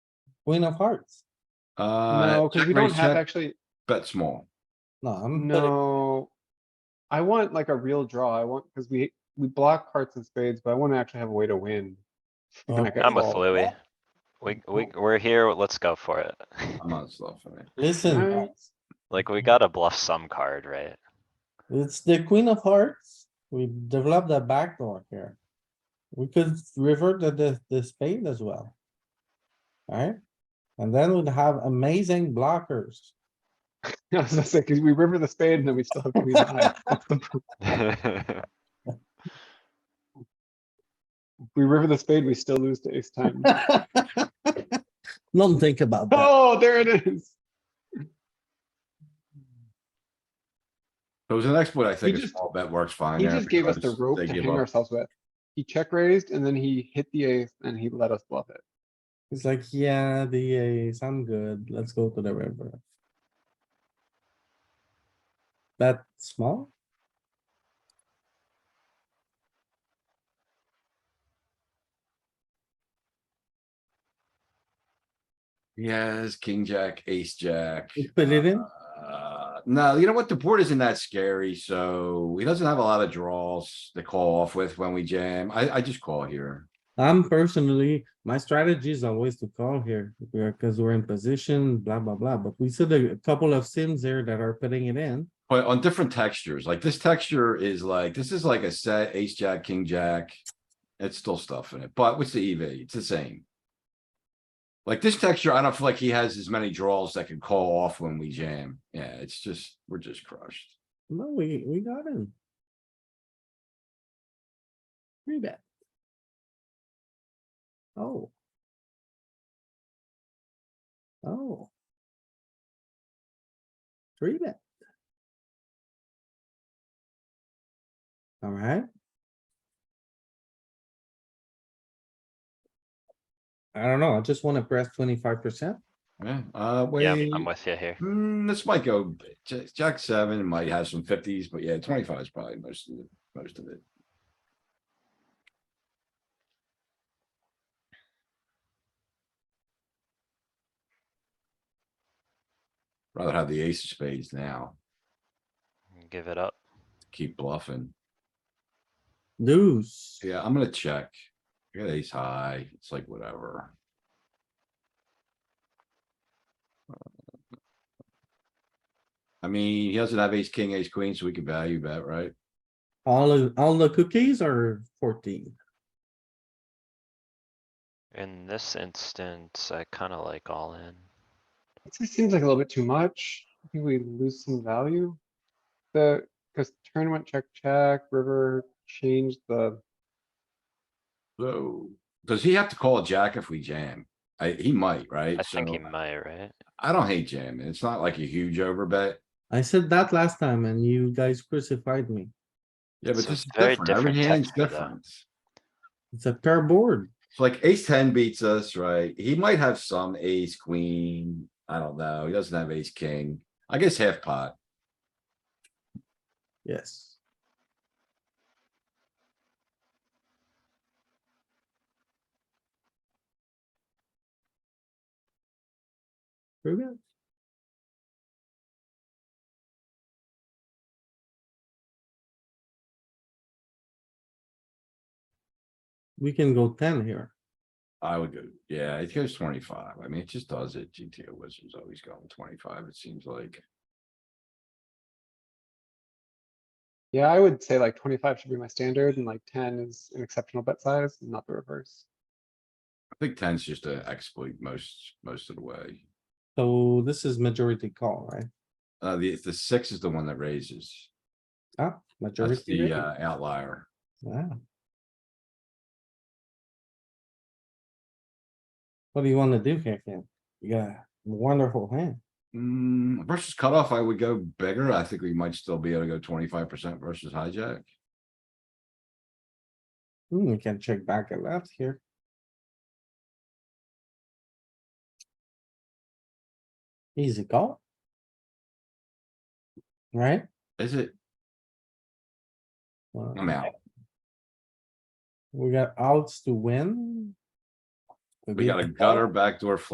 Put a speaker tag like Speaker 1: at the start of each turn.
Speaker 1: Queen of hearts.
Speaker 2: Uh,
Speaker 3: No, because
Speaker 2: check
Speaker 3: we don't
Speaker 2: raise,
Speaker 3: have
Speaker 2: check,
Speaker 3: actually,
Speaker 2: bet small.
Speaker 1: No,
Speaker 3: Mm-hmm.
Speaker 1: I'm. betting-
Speaker 3: no. I want like a real draw. I want, because we, we block hearts and spades, but I want to actually have a way to win.
Speaker 1: Oh,
Speaker 3: Like a
Speaker 4: I'm with
Speaker 3: call.
Speaker 4: Louis. We, we, we're here, let's go for it.
Speaker 2: I'm not bluffing it.
Speaker 1: Listen,
Speaker 3: Alright.
Speaker 1: guys,
Speaker 4: Like, we gotta bluff some card, right?
Speaker 1: it's the queen of hearts. We developed a backdoor here. We could revert the, the, the spade as well. Alright? And then we'd have amazing blockers.
Speaker 3: I was gonna say, 'cause we river the spade and then we still have queen high. What's the pro- We river the spade, we still lose to ace time.
Speaker 1: Don't think about that.
Speaker 3: Oh, there it is.
Speaker 2: It was an exploit, I think, a
Speaker 3: just-
Speaker 2: small bet works fine.
Speaker 3: He
Speaker 2: there
Speaker 3: just gave us the
Speaker 2: because
Speaker 3: rope
Speaker 2: they
Speaker 3: to
Speaker 2: give
Speaker 3: hang
Speaker 2: up.
Speaker 3: ourselves with. He check raised and then he hit the ace and he let us bluff it.
Speaker 1: It's like, yeah, the ace, I'm good. Let's go to the river. That small?
Speaker 2: He has king, jack, ace, jack.
Speaker 1: You put it in?
Speaker 2: Uh, No, you know what? The board isn't that scary, so he doesn't have a lot of draws to call off with when we jam. I, I just call here.
Speaker 1: I'm personally, my strategy is always to call here, because we're in position, blah, blah, blah, but we see the- a couple of sims there that are putting it in.
Speaker 2: But on different textures, like this texture is like, this is like a set ace, jack, king, jack. It's still stuff in it, but what's the EV? It's the same. Like this texture, I don't feel like he has as many draws that can call off when we jam. Yeah, it's just, we're just crushed.
Speaker 1: No, we, we got him. Three bet. Oh. Oh. Three bet. Alright. I don't know, I just wanna press twenty-five percent.
Speaker 2: Yeah, uh,
Speaker 4: Yeah,
Speaker 2: wait.
Speaker 4: I'm- I'm with you here.
Speaker 2: Hmm, this might go, ja- jack seven might have some fifties, but yeah, twenty-five is probably most of it, most of it. Rather have the ace of spades now,
Speaker 4: Give it up.
Speaker 2: keep bluffing.
Speaker 1: Deuce.
Speaker 2: Yeah, I'm gonna check. I got ace high, it's like whatever. I mean, he doesn't have ace, king, ace, queen, so we can value bet, right?
Speaker 1: All, of- all the cookies are fourteen.
Speaker 4: In this instance, I kinda like all in.
Speaker 3: It just seems like a little bit too much. I think we lose some value. The, because turn went check, check, river changed the,
Speaker 2: So, does he have to call a jack if we jam? I, he might,
Speaker 4: I
Speaker 2: right? So
Speaker 4: think he might, right?
Speaker 2: I don't hate jamming. It's not like a huge overbet.
Speaker 1: I said that last time and you guys crucified me.
Speaker 2: Yeah, but
Speaker 4: It's a
Speaker 2: this is
Speaker 4: very
Speaker 2: different. Every
Speaker 4: different
Speaker 2: hand's
Speaker 4: texture, though.
Speaker 2: different.
Speaker 1: It's a pair board.
Speaker 2: It's like ace ten beats us, right? He might have some ace queen. I don't know. He doesn't have ace king. I guess half pot.
Speaker 1: Yes. Three bet. We can go ten here.
Speaker 2: I would go, yeah, it goes twenty-five. I mean, it just does it. GTO Wizards always going twenty-five, it seems like.
Speaker 3: yeah, I would say like twenty-five should be my standard and like ten is an exceptional bet size, not the reverse.
Speaker 2: I think ten's just a exploit most, most of the way.
Speaker 1: So this is majority call, right?
Speaker 2: Uh, the, the six is the one that raises.
Speaker 1: Ah,
Speaker 2: That's
Speaker 1: majority.
Speaker 2: the
Speaker 1: raise.
Speaker 2: uh, outlier.
Speaker 1: Wow. What do you wanna do here, Ken? You got a wonderful hand.
Speaker 2: Mm, versus cutoff, I would go bigger. I think we might still be able to go twenty-five percent versus hijack.
Speaker 1: Hmm, we can check back and left here. Easy call. Right?
Speaker 2: Is it?
Speaker 1: Well,
Speaker 2: I'm out.
Speaker 1: We got outs to win.
Speaker 2: We got a
Speaker 1: beat the call.
Speaker 2: gutter backdoor flush